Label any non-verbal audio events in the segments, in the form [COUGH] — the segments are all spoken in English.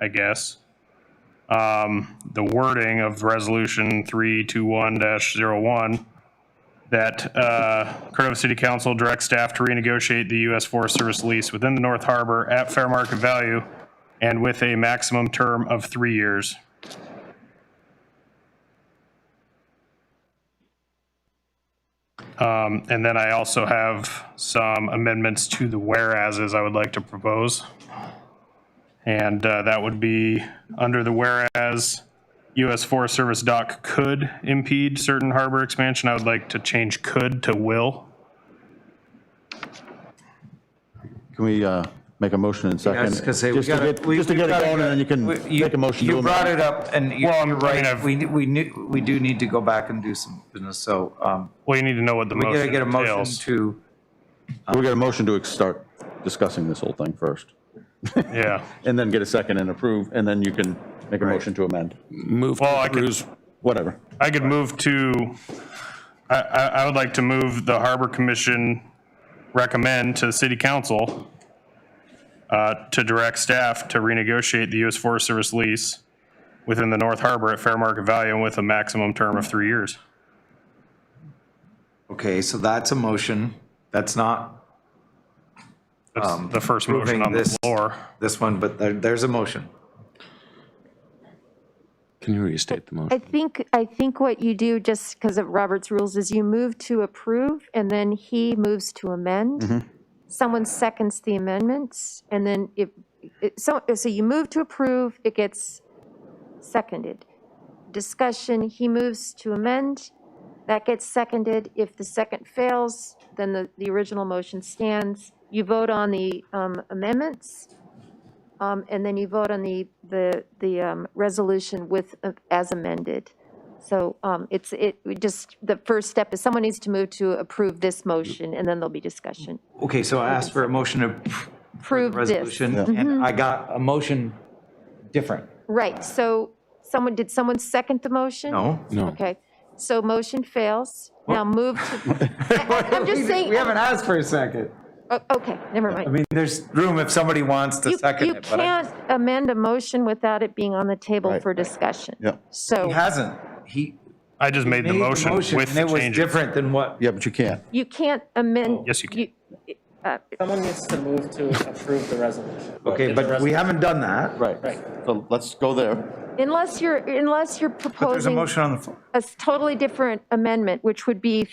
I guess. Um, the wording of resolution three two one dash zero one that uh, Cordova City Council directs staff to renegotiate the U.S. Forest Service lease within the North Harbor at fair market value and with a maximum term of three years. Um, And then I also have some amendments to the whereases I would like to propose. And uh, that would be under the whereas US Forest Service dock could impede certain harbor expansion. I would like to change could to will. Can we uh, make a motion in second? I was gonna say, we Just to gotta. get- we- Just to we get it gotta going, and then you can we- make a motion to You brought amend. it up, and you- Well, you're I mean, right, I've- we, we knew, we do need to go back and do some business, so, um, Well, you need to know what the we gotta motion get a motion entails. to, We got a motion to ex- start discussing this whole thing first, Yeah. and then get a second and approve, and then you can make a motion to amend, Move Well, I to could- Cruz. whatever. I could move to, I, I, I would like to move the Harbor Commission recommend to the city council uh, to direct staff to renegotiate the U.S. Forest Service lease within the North Harbor at fair market value and with a maximum term of three years. okay, so that's a motion, that's not That's the first motion approving on the um, this- floor. this one, but there, there's a motion. Can you restate the I motion? think, I think what you do, just because of Robert's rules, is you move to approve, and then he moves to amend. Someone seconds the amendments, and then if, it- so, so you move to approve, it gets seconded. Discussion, he moves to amend, that gets seconded. If the second fails, then the, the original motion stands. You vote on the um, amendments, um, and then you vote on the, the, the um, resolution with, uh, as amended. So um, it's, it, we just, the first step is someone needs to move to approve this motion, and then there'll be discussion. Okay, so I asked for a motion to Approve this. Mm-hmm. resolution, and I got a motion different, Right, so someone, did someone second the motion? no? No. Okay, so motion fails. Now move [LAUGHS] to, I- I- I'm just saying- We haven't asked for a second. oh, okay, never mind. I mean, there's room if somebody wants to You- second You it, but I- can't amend a motion without it being on the table Right, for right. discussion. Yeah. he So hasn't, he. I just made the made motion with And it the was changes. different than what Yeah, but you can't. you can't amend. Yes, you can. Someone needs to move to approve the resolution. Okay, but we haven't done that. Right. So let's go there. Unless you're, unless you're But there's a proposing motion on the floor. a s- totally different amendment, which would be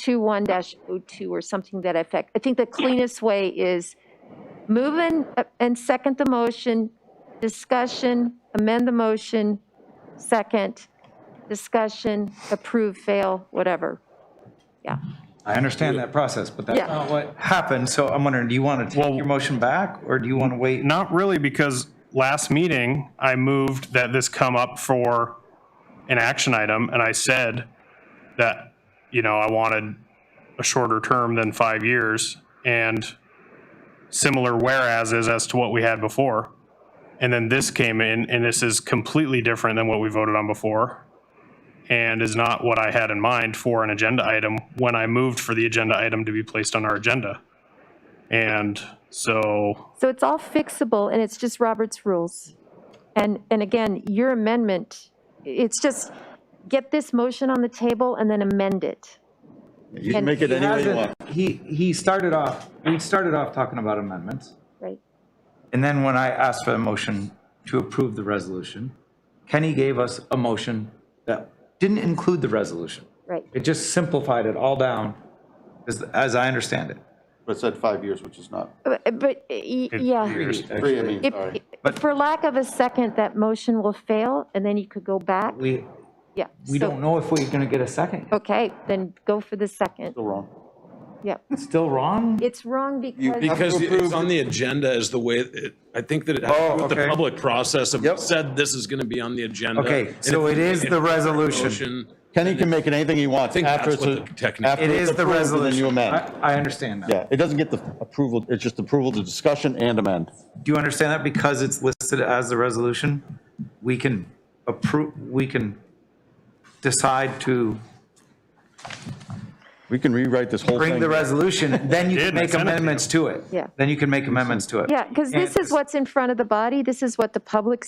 3221-02 or something that effect. I think the cleanest way is move in uh, and second the motion, discussion, amend the motion, second, discussion, approve, fail, whatever. Yeah. I understand that process, but that's Yeah. not what happened, so I'm wondering, do you want to take Well- your motion back, or do you want to wait? Not really, because last meeting, I moved that this come up for an action item, and I said that, you know, I wanted a shorter term than five years, and similar whereases as to what we had before. And then this came in, and this is completely different than what we voted on before, and is not what I had in mind for an agenda item when I moved for the agenda item to be placed on our agenda. And so So it's all fixable, and it's just Robert's rules. And, and again, your amendment, it's just, get this motion on the table and then amend it. You can And make it he any way you Hasn't- want. He, he started off, we started off talking about amendments, Right. and then when I asked for a motion to approve the resolution, Kenny gave us a motion that didn't include the resolution. Right. It just simplified it all down, as, as I understand it. But it said five years, which is not. But, uh, but, y- yeah. years. Three, I mean, If- sorry. But- For lack of a second, that motion will fail, and then you could go back. We, Yeah. we so- don't know if we're going to get a second. Okay, then go for the second. Still wrong. Yeah. It's still wrong? It's wrong because, Because to approve it's on the agenda is the way, it- I think that it has to Oh, do with the okay. public process of Yep. said this is going to be on the agenda. Okay, and so if it you is make the a resolution. motion, Kenny can make it anything he wants think after it's. that's what the a- technique- after It it's is the approved, and Then you resolution. I, amend. I understand that. Yeah, it doesn't get the approval, it's just approval to discussion and amend. Do you understand that because it's listed as the resolution, we can approve, we can decide to We can rewrite this whole thing. Bring the resolution, then you Did, can I make sent it to you. amendments to it. Yeah. Then you can make amendments to it. Yeah, because this And- is what's in front of the body. This is what the public